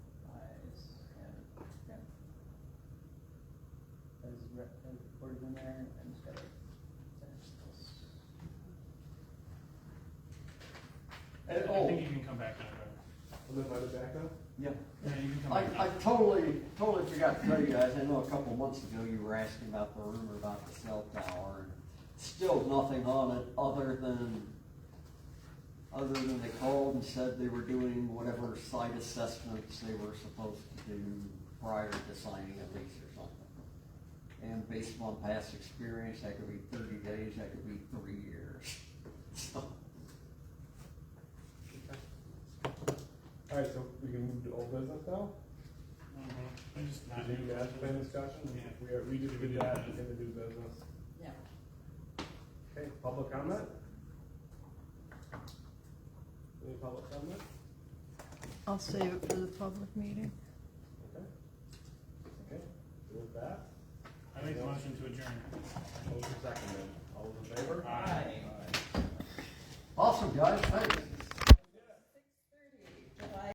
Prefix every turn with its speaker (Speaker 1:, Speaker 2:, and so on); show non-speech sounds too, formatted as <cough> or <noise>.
Speaker 1: and recorded in there and started.
Speaker 2: And,
Speaker 3: I
Speaker 2: oh,
Speaker 3: think you can come back now,
Speaker 2: I'm invited back now?
Speaker 4: Yeah.
Speaker 3: Brad. Yeah, you can come
Speaker 4: I,
Speaker 3: back
Speaker 4: I
Speaker 3: now.
Speaker 4: totally, totally forgot to tell you guys, I know a couple months ago you were asking about the rumor about the cell tower, and still nothing on it, other than, other than they called and said they were doing whatever site assessments they were supposed to do prior to signing a lease or something. And based upon past experience, that could be thirty days, that could be three years, <laughs> so.
Speaker 2: Alright, so we can move to old business now?
Speaker 3: Mhm. I just not-
Speaker 2: Did you guys plan discussion?
Speaker 3: Yeah.
Speaker 2: We are, we just did that in the new business.
Speaker 1: Yeah.
Speaker 2: Okay, public comment? Any public comment?
Speaker 5: I'll save it for the public meeting.
Speaker 2: Okay. Okay, with that,
Speaker 3: I make the motion to adjourn.
Speaker 2: motion seconded. All those in favor?
Speaker 3: Aye.
Speaker 2: Aye.
Speaker 4: Awesome, guys, thanks.